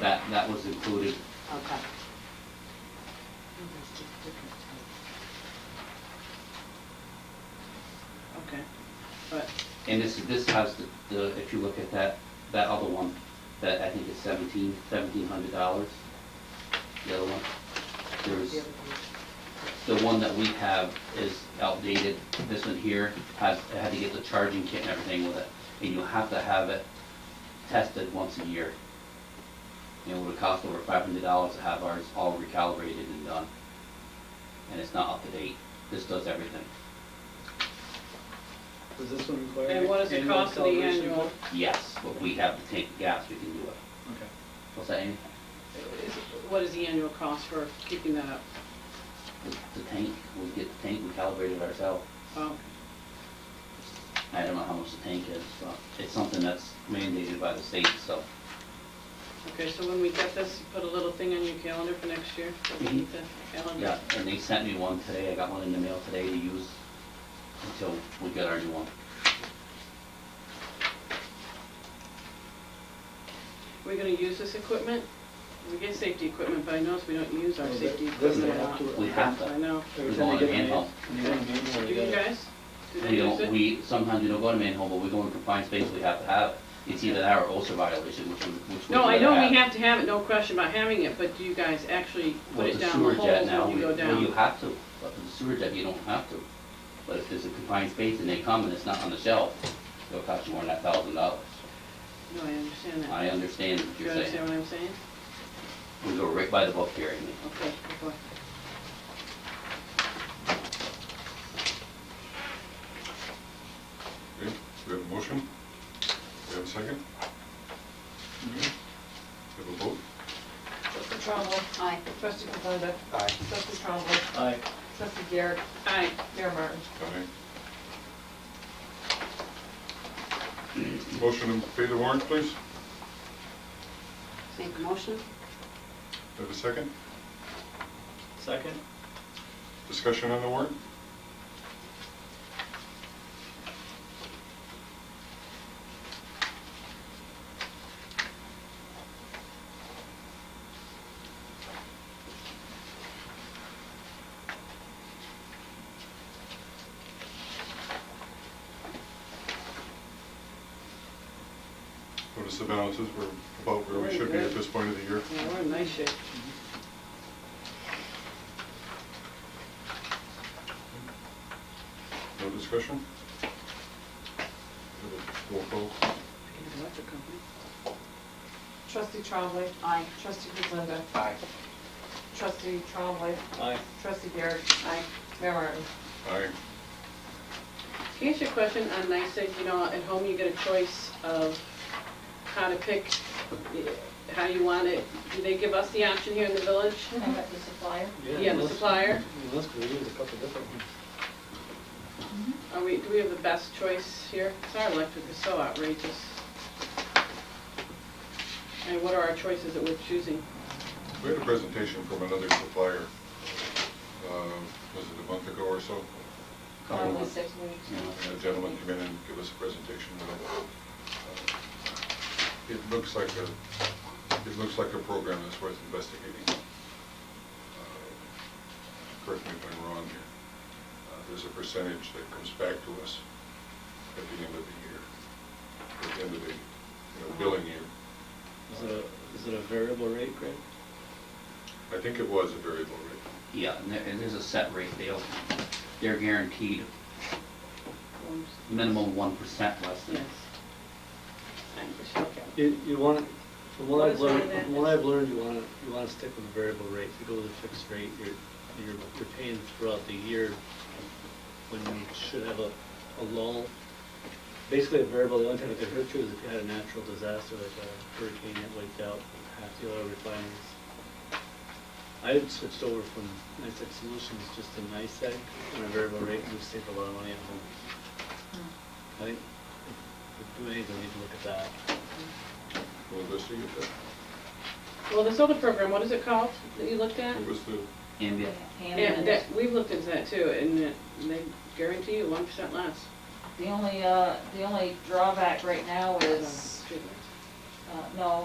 that, that was included. Okay. Okay, but, And this, this has the- the, if you look at that, that other one, that I think is seventeen, seventeen hundred dollars. The other one, there's, the one that we have is outdated. This one here has, it had to get the charging kit and everything with it. And you have to have it tested once a year. And it would cost over five hundred dollars to have ours all recalibrated and done. And it's not up to date. This does everything. Does this one require? and what is the annual cost of the calibration? annual? Yes, but we have the tank gas, we can do it. Okay. What's that, Amy? is- What is the annual cost for keeping that up? The the tank, we get the tank, we calibrate it ourselves. Oh, I don't know how much the tank is, but it's something that's mandated by the state, so. okay, so when we get this, you put a little thing on your calendar for next year, so we need the Mm-hmm. Yeah, calendar. and they sent me one today, I got one in the mail today to use until we get our new one. We're gonna use this equipment? We get safety equipment, but I notice we don't use Oh, our Well, safety that- doesn't equipment a have lot. to- We have I to. know. Every We time go you on get a a manhole. man- when you get a manhole, Do you you gotta- guys? Do they We use it? don't, we, sometimes we don't go to manhole, but we go in confined space, we have to have it. It's either that or OSHA violation, which we, which we. No, I rather know we have to have it, no question about having it, but do you guys actually put With it the down the sewer jet holes now, when you we- go well, down? you have to, but with the sewer jet, you don't have to. But if there's a confined space and they come and it's not on the shelf, it'll cost you more than a thousand dollars. No, I understand that. I understand what Do you you're saying. understand what I'm saying? We go right by the book here, Amy. Okay, before. Okay, we have a motion, we have a second. Okay. Mm-hmm. We have a vote, Trustee Trombley. Aye. Trustee Kovanda. Aye. Trustee Trombley. Aye. Trustee Garrett. Aye. Mayor Martin. aye. Motion to pay the warrant, please, Make a motion? we have a second, Second? discussion on the warrant? Notice the balances, we're about where we should be at this point of the year. Yeah, we're in nice shape. Mm-hmm. No discussion? Roll call. Electric company. Trustee Trombley. Aye. Trustee Kovanda. Aye. Trustee Trombley. Aye. Trustee Garrett. Aye. Mayor Martin. Aye. Can I ask you a question on NICEAG? You know, at home you get a choice of how to pick, eh, how you want it. Do they give us the option here in the village? the supplier. Yeah, the let's- supplier. yeah, Let's, we use a couple different ones. Mm-hmm. Are we, do we have the best choice here? 'Cause our electric is so outrageous. And what are our choices that we're choosing? We had a presentation from another supplier, uh, was it a month ago or so? Couple Probably months. six weeks. Yeah. And a gentleman came in and gave us a presentation. of uh, It It looks like a, it looks like a program that's worth investigating. Uh, Correct me if I'm wrong here. Uh, There's a percentage that comes back to us at the end of the year, at the end of the, you know, billing year. Is it a, is it a variable rate, Greg? I think it was a variable rate. Yeah, and there, and there's a set rate, they'll, they're guaranteed minimum one percent less Yes. than. Thank you, Michelle. You, you wanna, from what What I've is one of learned, that? from what I've learned, you wanna, you wanna stick with a variable rate. If you go with a fixed rate, you're, you're, you're paying throughout the year when you should have a, a lull. Basically, a variable, the only time it could hurt you is if you had a natural disaster like a hurricane that wiped out half the oil refineries. I had switched over from NICEAG Solutions just to NICEAG on a variable rate, and we saved a lot of money at home. Hmm. I think, if we do anything, we need to look at that. We'll investigate that. Well, this other program, what is it called that you looked at? It was the, Ambient, Yeah, that, we've looked into that too, and it- they guarantee you one percent less. The only, uh, the only drawback right now is, Treatment. uh, no,